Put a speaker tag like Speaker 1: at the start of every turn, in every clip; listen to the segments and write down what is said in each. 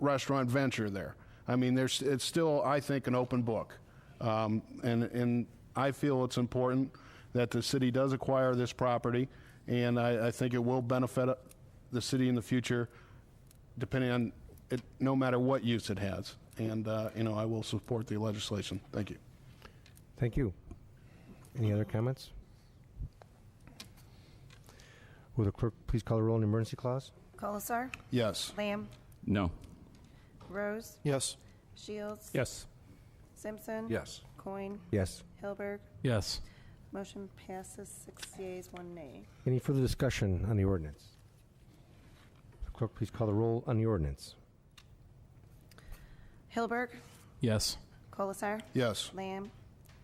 Speaker 1: restaurant venture there. I mean, there's, it's still, I think, an open book. Um, and, and I feel it's important that the city does acquire this property, and I, I think it will benefit uh, the city in the future, depending on, it, no matter what use it has. And, uh, you know, I will support the legislation. Thank you.
Speaker 2: Thank you. Any other comments? Will the clerk please call the roll on the emergency clause?
Speaker 3: Colasar.
Speaker 1: Yes.
Speaker 3: Lamb.
Speaker 4: No.
Speaker 3: Rose.
Speaker 5: Yes.
Speaker 3: Shields.
Speaker 4: Yes.
Speaker 3: Simpson.
Speaker 5: Yes.
Speaker 3: Coin.
Speaker 2: Yes.
Speaker 3: Hilberg.
Speaker 4: Yes.
Speaker 3: Motion passes six yeas, one nay.
Speaker 2: Any further discussion on the ordinance? The Clerk, please call the roll on the ordinance.
Speaker 3: Hilberg.
Speaker 4: Yes.
Speaker 3: Colasar.
Speaker 1: Yes.
Speaker 3: Lamb.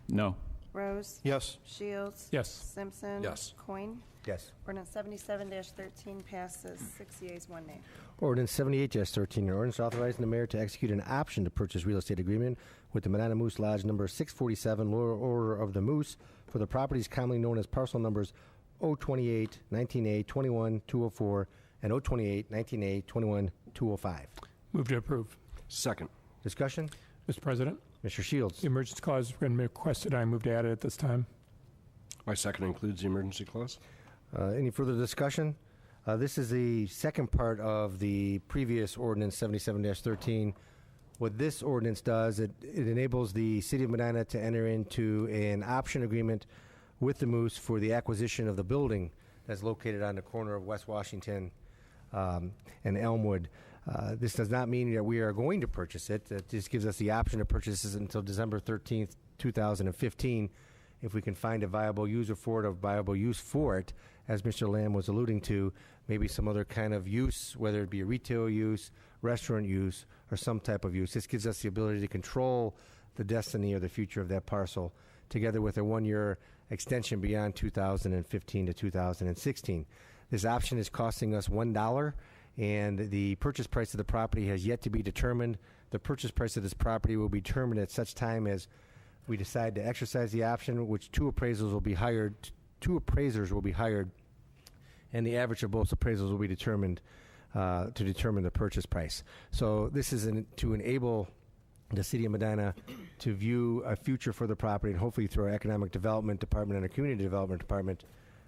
Speaker 4: No.
Speaker 3: Rose.
Speaker 5: Yes.
Speaker 3: Shields.
Speaker 4: Yes.
Speaker 3: Simpson.
Speaker 5: Yes.
Speaker 3: Coin.
Speaker 2: Yes.
Speaker 3: Ordinance seventy-seven thirteen passes six yeas, one nay.
Speaker 2: Ordinance seventy-eight thirteen, an ordinance authorizing the mayor to execute an option to purchase real estate agreement with the Medina Moose Lodge number six forty-seven, Lower Order of the Moose, for the properties commonly known as parcel numbers 028, 19 A, twenty-one, two oh four, and 028, 19 A, twenty-one, two oh five.
Speaker 6: Move to approve.
Speaker 5: Second.
Speaker 2: Discussion?
Speaker 6: Mr. President,
Speaker 2: Mr. Shields?
Speaker 6: the emergency clause has been requested. I move to add it at this time.
Speaker 5: My second includes the emergency clause?
Speaker 2: Uh, Any further discussion? Uh, This is the second part of the previous ordinance 77-13. What this ordinance does, it it enables the city of Medina to enter into an option agreement with the Moose for the acquisition of the building that's located on the corner of West Washington um, and Elmwood. Uh, This does not mean that we are going to purchase it. It just gives us the option to purchase this until December 13th, 2015, if we can find a viable user for it, a viable use for it, as Mr. Lamb was alluding to, maybe some other kind of use, whether it be a retail use, restaurant use, or some type of use. This gives us the ability to control the destiny or the future of that parcel, together with a one-year extension beyond 2015 to 2016. This option is costing us one dollar, and the purchase price of the property has yet to be determined. The purchase price of this property will be determined at such time as we decide to exercise the option, which two appraisals will be hired, two appraisers will be hired, and the average of both appraisals will be determined uh, to determine the purchase price. So this is an, to enable the city of Medina to view a future for the property, and hopefully through our economic development department and our community development department,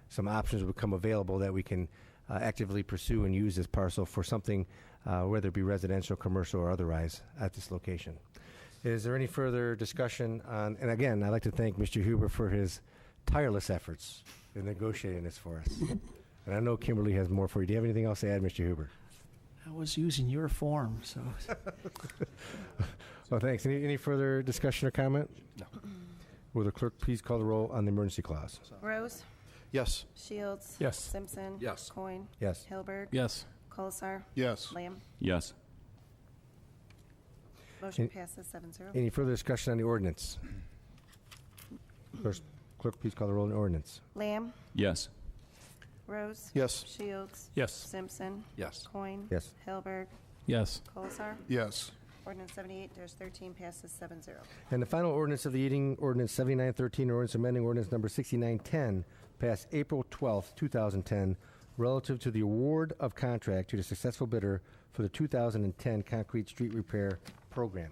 Speaker 2: some options will become available that we can uh, actively pursue and use this parcel for something, uh, whether it be residential, commercial, or otherwise, at this location. Is there any further discussion on, and again, I'd like to thank Mr. Huber for his tireless efforts in negotiating this for us. And I know Kimberly has more for you. Do you have anything else to add, Mr. Huber?
Speaker 7: I was using your form, so
Speaker 2: Well, thanks. Any, any further discussion or comment?
Speaker 5: No.
Speaker 2: Will the clerk please call the roll on the emergency clause?
Speaker 3: Rose.
Speaker 5: Yes.
Speaker 3: Shields.
Speaker 6: Yes.
Speaker 3: Simpson.
Speaker 5: Yes.
Speaker 3: Coin.
Speaker 2: Yes.
Speaker 3: Hilberg.
Speaker 4: Yes.
Speaker 3: Colasar.
Speaker 1: Yes.
Speaker 3: Lamb.
Speaker 4: Yes.
Speaker 3: Motion
Speaker 2: Any-
Speaker 3: passes seven zero.
Speaker 2: Any further discussion on the ordinance? Clerk, clerk, please call the roll on the ordinance.
Speaker 3: Lamb.
Speaker 4: Yes.
Speaker 3: Rose.
Speaker 5: Yes.
Speaker 3: Shields.
Speaker 6: Yes.
Speaker 3: Simpson.
Speaker 5: Yes.
Speaker 3: Coin.
Speaker 2: Yes.
Speaker 3: Hilberg.
Speaker 4: Yes.
Speaker 3: Colasar.
Speaker 1: Yes.
Speaker 3: Ordinance seventy-eight thirteen passes seven zero.
Speaker 2: And the final ordinance of the eating ordinance 7913, ordinance amending ordinance number 6910, passed April 12th, 2010, relative to the award of contract to the successful bidder for the 2010 concrete street repair program.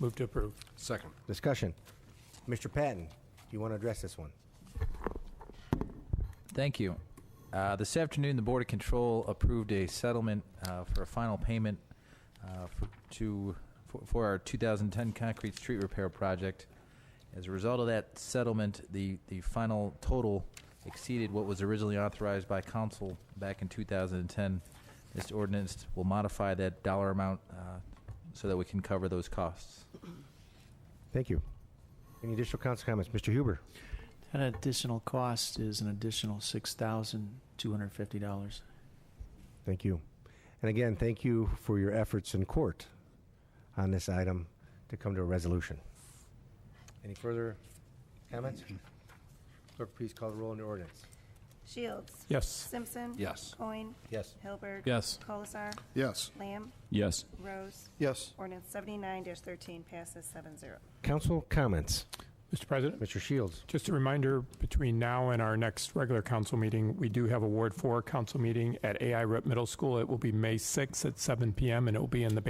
Speaker 6: Move to approve.
Speaker 5: Second.
Speaker 2: Discussion. Mr. Patton, do you want to address this one?
Speaker 8: Thank you. Uh, This afternoon, the Board of Control approved a settlement uh, for a final payment uh, for- to, for- for our 2010 concrete street repair project. As a result of that settlement, the, the final total exceeded what was originally authorized by council back in 2010. This ordinance will modify that dollar amount uh, so that we can cover those costs.
Speaker 2: Thank you. Any additional council comments? Mr. Huber?
Speaker 7: that additional cost is an additional six thousand two hundred fifty dollars.
Speaker 2: Thank you. And again, thank you for your efforts in court on this item to come to a resolution. Any further comments? Clerk, please call the roll on the ordinance.
Speaker 3: Shields.
Speaker 6: Yes.
Speaker 3: Simpson.
Speaker 5: Yes.
Speaker 3: Coin.
Speaker 2: Yes.
Speaker 3: Hilberg.
Speaker 4: Yes.
Speaker 3: Colasar.
Speaker 1: Yes.
Speaker 3: Lamb.
Speaker 4: Yes.
Speaker 3: Rose.
Speaker 5: Yes.
Speaker 3: Ordinance seventy-nine thirteen passes seven zero.
Speaker 2: Council comments.
Speaker 6: Mr. President,
Speaker 2: Mr. Shields.
Speaker 6: just a reminder, between now and our next regular council meeting, we do have a Ward 4 council meeting at AI Rep Middle School. It will be May 6th at 7 p.m., and it will be in the